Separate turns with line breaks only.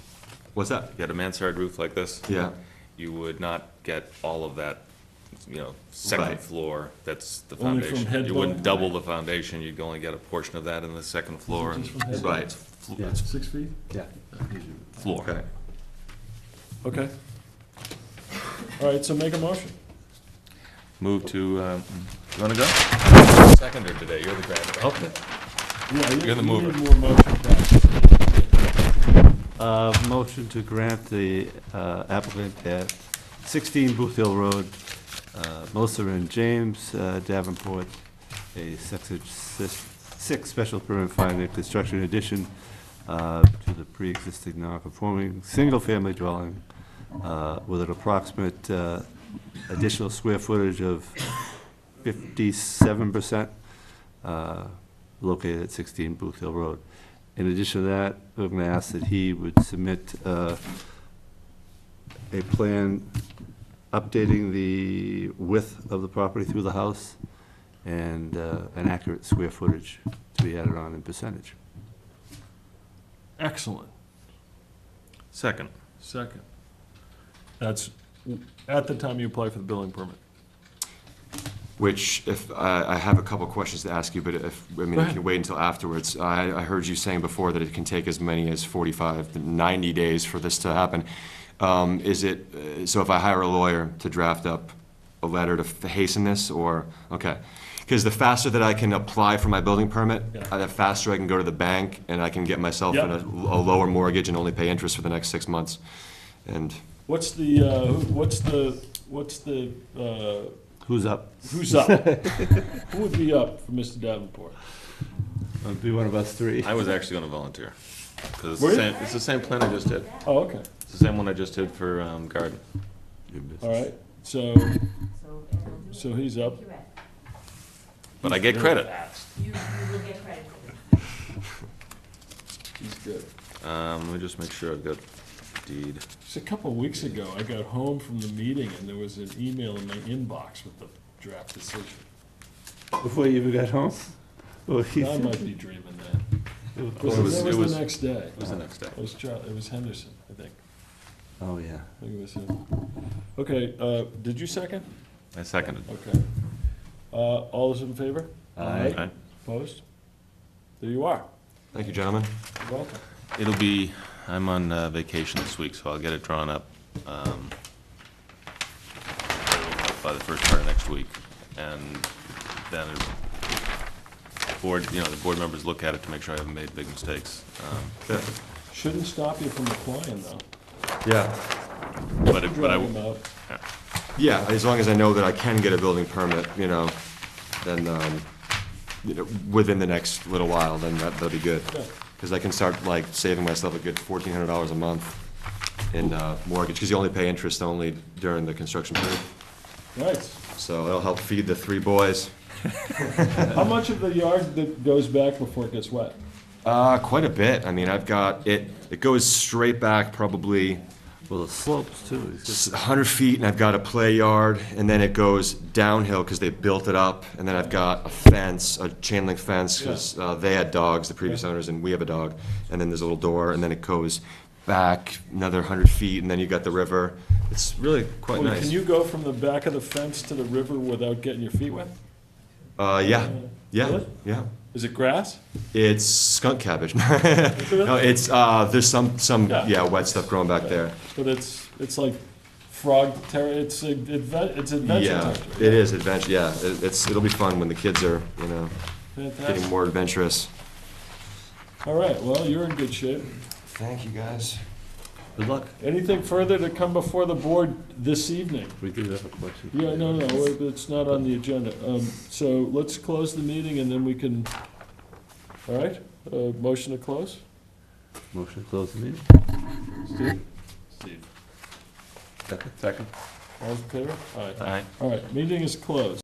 What's that?
If you had a mansard roof like this.
Yeah.
You would not get all of that, you know, second
Right.
floor, that's the
Only from
foundation.
head
You wouldn't
level.
double the foundation, you'd only get a portion of that in the second floor.
Just from head
Right,
Flo-
Yeah.
it's
Six feet?
Yeah.
Floor.
okay.
Okay. All right, so make a motion.
Move to, um, you wanna go? Seconder today, you're the grand, oh,
Yeah, you-
You're the
you
mover.
need more motion, Pat.
Uh, Motion to grant the uh, applicant at 16 Booth Hill Road, uh, Moser and James uh, Davenport, a six- six six special permit finding construction addition uh, to the pre-existing non-conforming single-family dwelling uh, with an approximate uh, additional square footage of 57% uh, located at 16 Booth Hill Road. In addition to that, I'm going to ask that he would submit uh, a plan updating the width of the property through the house and uh, an accurate square footage to be added on in percentage.
Excellent.
second,
Second. That's at the time you apply for the building permit.
Which, if, I I have a couple questions to ask you, but if, I mean,
Go
you
ahead.
can wait until afterwards. I, I heard you saying before that it can take as many as 45, 90 days for this to happen. Um, Is it, uh, so if I hire a lawyer to draft up a letter to f- hasten this, or, okay? Because the faster that I can apply for my building permit,
Yeah.
uh, the faster I can go to the bank, and I can get myself in a
Yep.
a lower mortgage and only pay interest for the next six months. And
What's the, uh, who- what's the, what's the, uh,
Who's up?
who's up? Who would be up for Mr. Davenport?
It'd be one of us three.
I was actually gonna volunteer, cause it's
Were
the
you?
same, it's the same plan I just did,
Oh, okay,
it's the same one I just did for, um, garden.
all right, so,
So, and I'll do it.
so he's up.
Thank you, Ed.
But I get credit.
You, you will get credit for this.
He's good.
Um, let me just make sure I've got deed.
Just a couple of weeks ago, I got home from the meeting and there was an email in my inbox with the draft decision.
Before you even got home? Oh, he's-
I might be dreaming that. It was,
It was- it
that was
was-
the next day.
It was the next day.
It was Charlie, it was Henderson, I think.
Oh, yeah.
I think it was him. Okay, uh, did you second?
I seconded.
Okay. Uh, all those in favor?
Aye.
Aye.
Opposed? There you are.
thank you, gentlemen.
You're welcome.
It'll be, I'm on uh, vacation this week, so I'll get it drawn up um, by the first part of next week. And then it- the board, you know, the board members look at it to make sure I haven't made big mistakes. Um,
Shouldn't stop you from applying though.
Yeah.
But it- but I,
Drag him out.
Yeah, as long as I know that I can get a building permit, you know, then, um, you know, within the next little while, then that, that'll be good.
Yeah.
Because I can start like saving myself a good fourteen hundred dollars a month in uh, mortgage, because you only pay interest only during the construction period.
Nice.
So it'll help feed the three boys.
How much of the yard that goes back before it gets wet?
Uh, quite a bit. I mean, I've got, it, it goes straight back probably
Well, the slopes, too. He's got-
s- 100 feet and I've got a play yard and then it goes downhill because they built it up and then I've got a fence, a chain link fence because they had dogs, the previous owners, and we have a dog. And then there's a little door and then it goes back another 100 feet and then you got the river. It's really quite
Well, Can
nice.
you go from the back of the fence to the river without getting your feet wet?
Uh, yeah, yeah,
Really?
yeah.
Is it grass?
It's skunk cabbage. No, it's, uh, there's some, some,
Yeah.
yeah, wet stuff growing back there.
But it's, it's like frog terror, it's, a- adve- it's adventure
Yeah,
territory.
it is adventure, yeah. It- It's, it'll be fun when the kids are, you know, getting
Fantastic.
more adventurous.
All right, well, you're in good shape.
Thank you, guys.
Good luck.
Anything further to come before the board this evening?
We do have a question.
Yeah, no, no, wait, it's not on the agenda. Um, so let's close the meeting and then we can, all right? Uh, motion to close?
Motion to close the meeting?
Steve? Steve.
second.
All in favor? All right,
Aye.
all right, meeting is closed.